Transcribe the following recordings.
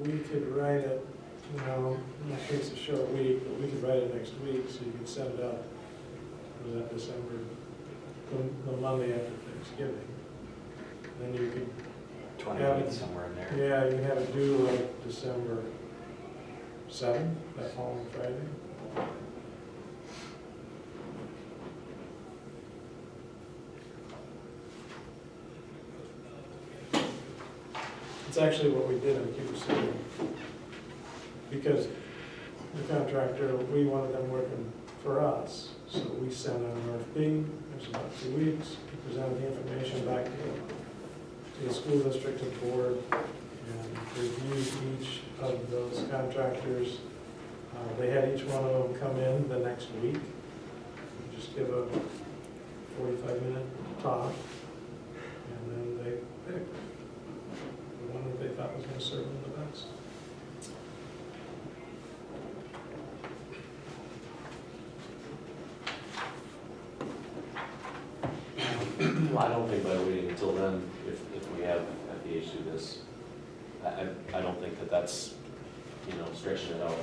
we could write it, you know, in the case of short week, but we could write it next week, so you could send it out, was that December, the, the Monday after Thanksgiving. Then you could Twenty Yeah, feet it's- somewhere in Yeah, there. you have it due like December seventh, that following Friday. It's actually what we did in Cuba City. Because the contractor, we wanted them working for us, so we sent out an RFP, it was about two weeks, we presented the information back to them to the school district and board and reviewed each of those contractors. Uh, They had each one of them come in the next week, just give a forty-five minute talk, and then they picked the one that they thought was gonna serve them the best. Well, I don't think by waiting until then, if, if we have at the age do this, I, I, I don't think that that's, you know, stretching it out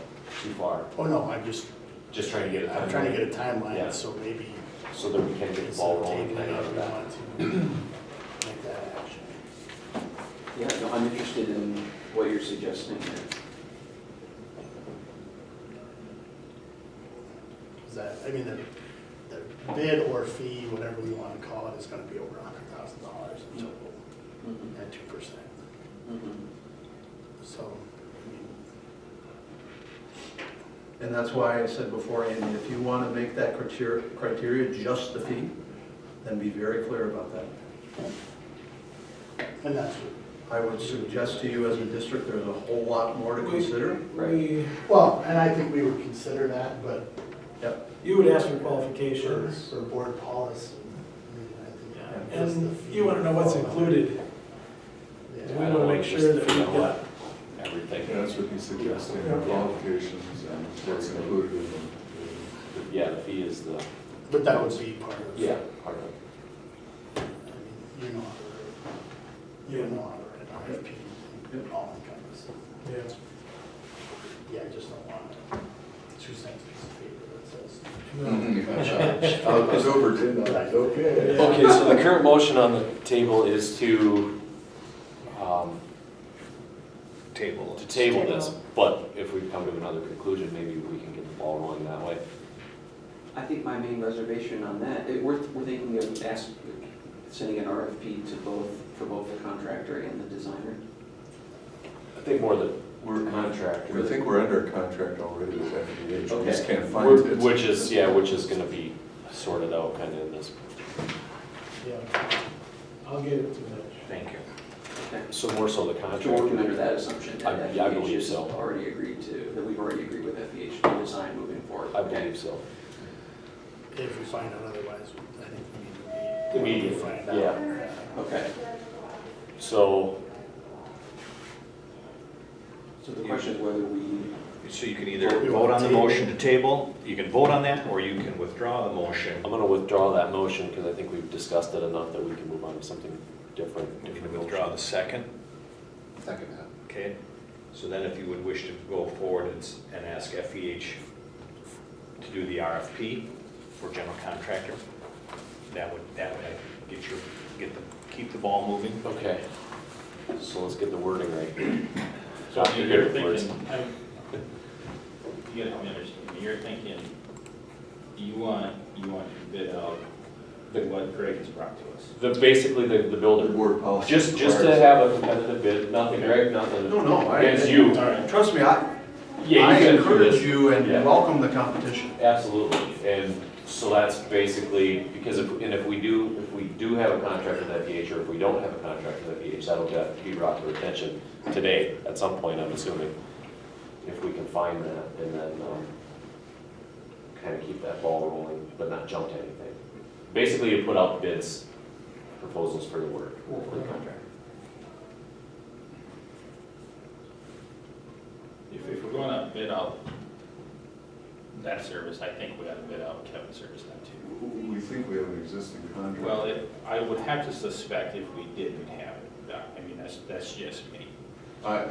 too far. Oh, no, I'm just, Just trying to get it. I'm trying to get a Yeah. timeline, so maybe So that we can get the instead ball of rolling. tabling kind it, of we that. want to make that action. Yeah, no, I'm interested in what you're suggesting here. Is that, I mean, the, the bid or fee, whatever we want to call it, is going to be over a hundred thousand dollars in total Mm-hmm. at two percent. So, I mean, And that's why I said before, Andy, if you want to make that criteria, criteria just the fee, then be very clear about that. and that's, what- I would suggest to you as a district, there's a whole lot more to consider. We, well, and I think we would consider that, but Yep. you would ask for for, qualifications, for board policy, I mean, I think just the and fee- you wanna know what's included. Yeah. We wanna make sure that we've got Everything. Yeah, That's what he's suggesting, Yeah. qualifications and what's included in them. Yeah, the fee is the, But that would be part of. yeah, part of it. I mean, You know how to, you know how to write an RFP, all encompassing. Yeah. Yeah, I just don't want two cents piece of paper that says. No. I was over ten, Uh, I was okay. Okay, so the current motion on the table is to, um, Table. To table this, Table. but if we come to another conclusion, maybe we can get the ball rolling that way. I think my main reservation on that, it, we're, we're thinking of ask, sending an RFP to both, for both the contractor and the designer. I think more that we're contractor. I think we're under contract already with FEH, we just Okay. can't find We're- it. Which is, yeah, which is gonna be sorted out kind of in this. Yeah. I'll get it to them. Thank you. Okay. So more so the But You're working contractor. under that assumption I- that yeah, I FEH believe has so. already agreed to, that we've already agreed with FEH to design moving forward. I believe so. If we find out otherwise, I think we need to meet. Immediately, Find out. yeah. Okay, So, so the question is whether we, So you can either vote on the motion to table, you can vote on that, or you can withdraw the motion. I'm gonna withdraw that motion because I think we've discussed it enough that we can move on to something different. You can different withdraw motion. the second, Second half. okay? So then if you would wish to go forward and, s- and ask FEH to do the RFP for general contractor, that would, that would get your, get the, keep the ball moving. Okay, so let's get the wording right. So Not your you're favorite words. thinking, I'm- you gotta help me understand, you're thinking, you want, you want to bid out the what Greg has brought to us. The, basically, the, the The builder, board policy. just, just to requires- have a competitive bid, nothing Greg, nothing No, no, I. against you. All right. Trust me, I, Yeah, I you can do encourage this. you and Yeah. welcome the competition. Absolutely, and so that's basically, because if, and if we do, if we do have a contract with FEH, or if we don't have a contract with FEH, that'll get- be brought to attention today, at some point, I'm assuming, if we can find that, and then, um, kind of keep that ball rolling, but not jump to anything. Basically, you put out bids, proposals for the work, for the contract. If, if we're gonna bid out that service, I think we gotta bid out Kevin's service then too. We think we have an existing contract. Well, it- I would have to suspect if we didn't have it, I mean, that's, that's just me. I,